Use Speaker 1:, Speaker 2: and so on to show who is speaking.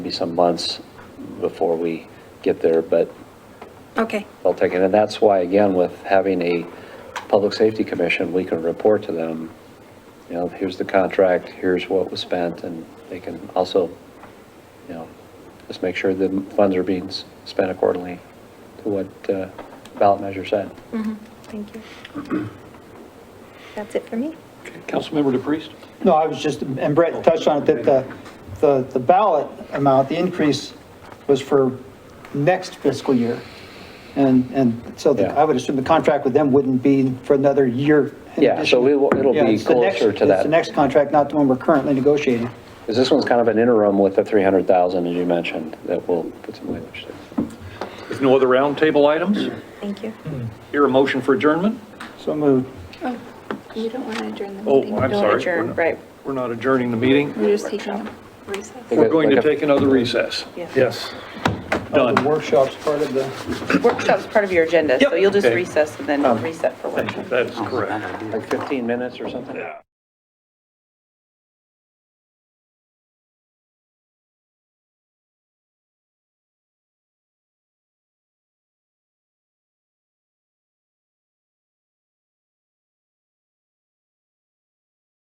Speaker 1: some months before we get there, but
Speaker 2: Okay,
Speaker 1: they'll take it. And that's why, again, with having a public safety commission, we can report to them, you know, here's the contract, here's what was spent, and they can also, you know, just make sure the funds are being s- spent accordingly to what uh, ballot measure said.
Speaker 2: Mm-hmm. thank you. That's it for me.
Speaker 3: Councilmember DePriest?
Speaker 4: No, I was just, and Brett touched on it, that the, the the ballot amount, the increase was for next fiscal year. And, and so the-
Speaker 1: Yeah.
Speaker 4: I would assume the contract with them wouldn't be for another year. in
Speaker 1: Yeah, so
Speaker 4: addition.
Speaker 1: we will- it'll
Speaker 4: Yeah,
Speaker 1: be
Speaker 4: it's the next-
Speaker 1: closer to
Speaker 4: It's
Speaker 1: that.
Speaker 4: the next contract, not the one we're currently negotiating.
Speaker 1: Because this one's kind of an interim with the 300,000, as you mentioned, that we'll put some language to.
Speaker 3: With no other roundtable items,
Speaker 2: Thank you.
Speaker 3: hear a motion for adjournment?
Speaker 4: So moved.
Speaker 5: Oh, you don't want to adjourn the
Speaker 3: Oh,
Speaker 5: meeting.
Speaker 3: I'm
Speaker 5: Don't
Speaker 3: sorry. We're
Speaker 5: adjourn,
Speaker 3: not-
Speaker 5: right.
Speaker 3: We're not adjourning the meeting.
Speaker 5: We're just taking a recess.
Speaker 3: We're going to take another recess.
Speaker 6: Yes.
Speaker 4: Oh, The
Speaker 3: Done.
Speaker 4: workshop's part of the,
Speaker 7: Workshop's part of your agenda, so
Speaker 3: Yep.
Speaker 7: you'll just
Speaker 3: Okay. Um,
Speaker 7: recess and then reset for workshop.
Speaker 3: That is correct.
Speaker 1: Like 15 minutes or something?